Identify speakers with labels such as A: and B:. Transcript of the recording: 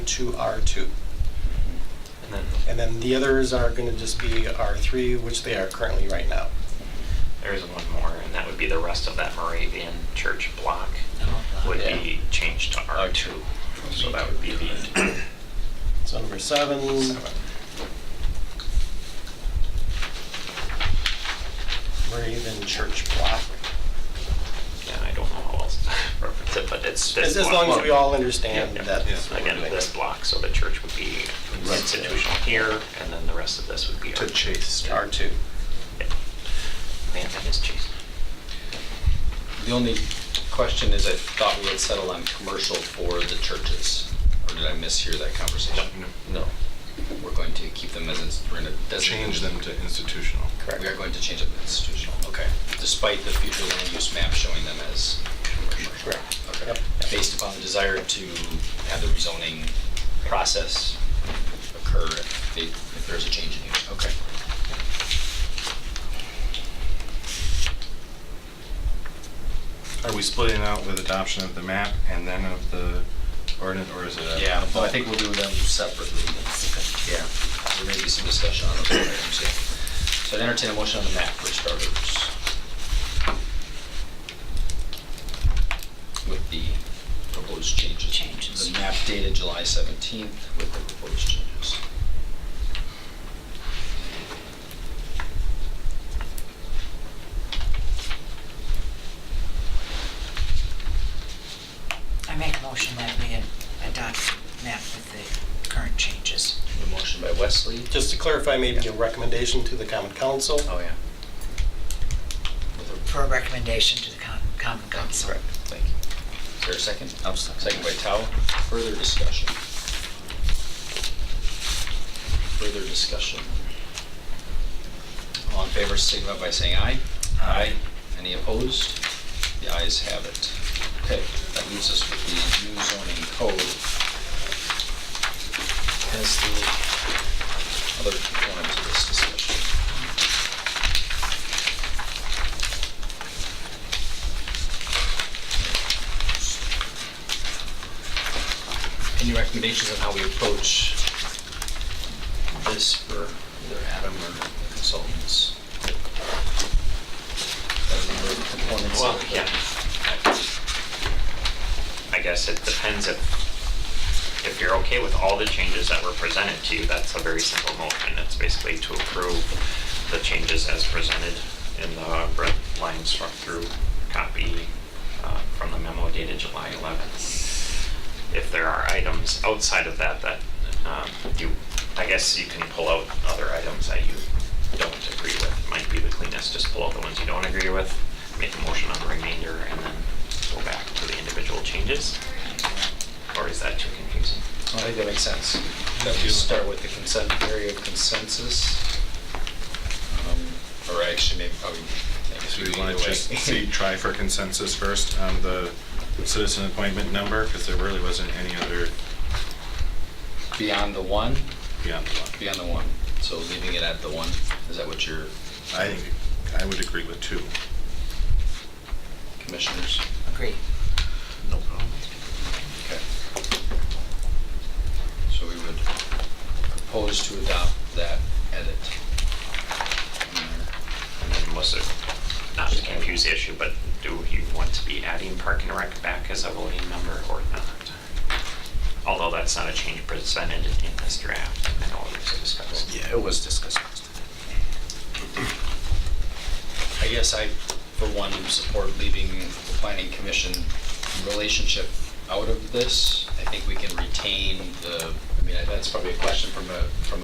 A: to R2.
B: And then
A: And then the others are going to just be R3, which they are currently right now.
B: there is one more, and that would be the rest of that Moravian church block would
A: Yeah.
B: be changed to R2. So that would be the
A: So number seven,
B: seven. Moravian
A: church block.
B: Yeah, I don't know how else to reference it, but it's this
A: As as
B: block.
A: long as we all understand
B: Yeah, yeah.
A: that.
B: Again, this block, so the church would be
A: Right.
B: institutional here, and then the rest of this would be
C: to
B: R2.
C: Chase.
A: R2.
B: Yeah. Man, that is Chase.
D: The only question is, I thought we would settle on commercial for the churches, or did I mishear that conversation? No, we're going to keep them as, ins- we're going to.
C: Change them to institutional.
D: We are going to change them to institutional, okay, despite the future land use map showing them as commercial.
A: Correct.
D: Okay,
A: Yep.
D: based upon the desire to have the rezoning process occur if they, if there's a change in use, okay.
C: Are we splitting out with adoption of the map and then of the ordinance, or is it? a-
D: Yeah, but I think we'll do them separately. Yeah, there may be some discussion on those items, yeah. So I'd entertain a motion on the map for starters. With the proposed changes.
E: Changes.
D: The map dated July 17th with the proposed changes.
E: I make a motion that we adopt map with the current changes.
D: A motion by Wesley.
A: Just to clarify, maybe a recommendation to the common council.
D: Oh, yeah. With a-
E: For a recommendation to the con- common council.
D: Correct, thank you. Is there a second? Second by Tao. Further discussion? Further discussion? All in favor, signify by saying aye.
E: Aye.
D: Any opposed? The ayes have it. Okay, that leaves us with the new zoning code as the other component to this discussion. Any recommendations on how we approach this for either Adam or the consultants? Got a number of components.
B: Well, yeah. I guess it depends if, if you're okay with all the changes that were presented to you, that's a very simple motion. It's basically to approve the changes as presented in the red line struck through copy uh, from the memo dated July 11th. If there are items outside of that that um, you, I guess you can pull out other items that you don't agree with. Might be the cleanest, just pull out the ones you don't agree with, make a motion on the remainder, and then go back to the individual changes. Or is that too confusing?
D: I think that makes sense. That we start with the consent, area of consensus. Um, Or actually, maybe probably, I guess
C: So
D: we
C: we
D: could
C: want
D: either
C: to
D: way.
C: just see, try for consensus first on the citizen appointment number, because there really wasn't any other
D: Beyond the one,
C: beyond the one.
D: beyond the one. So leaving it at the one, is that what your
C: I think, I would agree with two.
D: commissioners?
E: Agree. No problem.
D: Okay. So we would propose to adopt that edit.
B: And then was it, not to confuse the issue, but do you want to be adding Park and Rec back as a voting member or not? Although that's not a change presented in this draft, I know it was discussed.
D: Yeah, it was discussed. I guess I, for one, support leaving the planning commission relationship out of this. I think we can retain the, I mean, that's probably a question from a, from